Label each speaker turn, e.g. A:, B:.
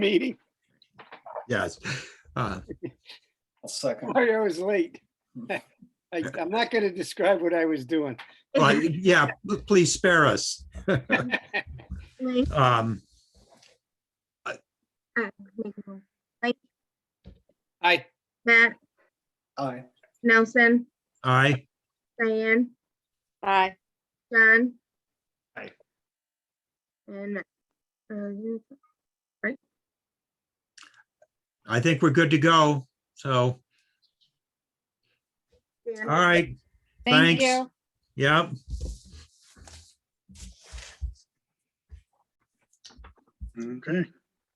A: meeting.
B: Yes. Uh,
C: I'll second.
A: Sorry I was late. I, I'm not going to describe what I was doing.
B: well, yeah, p- please spare us.
D: Like,
B: Um,
D: uh, Nicole,
A: I,
D: Matt,
C: Aye.
D: Nelson,
B: aye,
D: Diane,
E: Aye.
D: John.
C: Aye.
D: And, uh,
B: I think we're good to go. So, all
D: Dan,
B: right,
E: Thank
B: Thanks.
E: you.
B: yep.
F: Okay.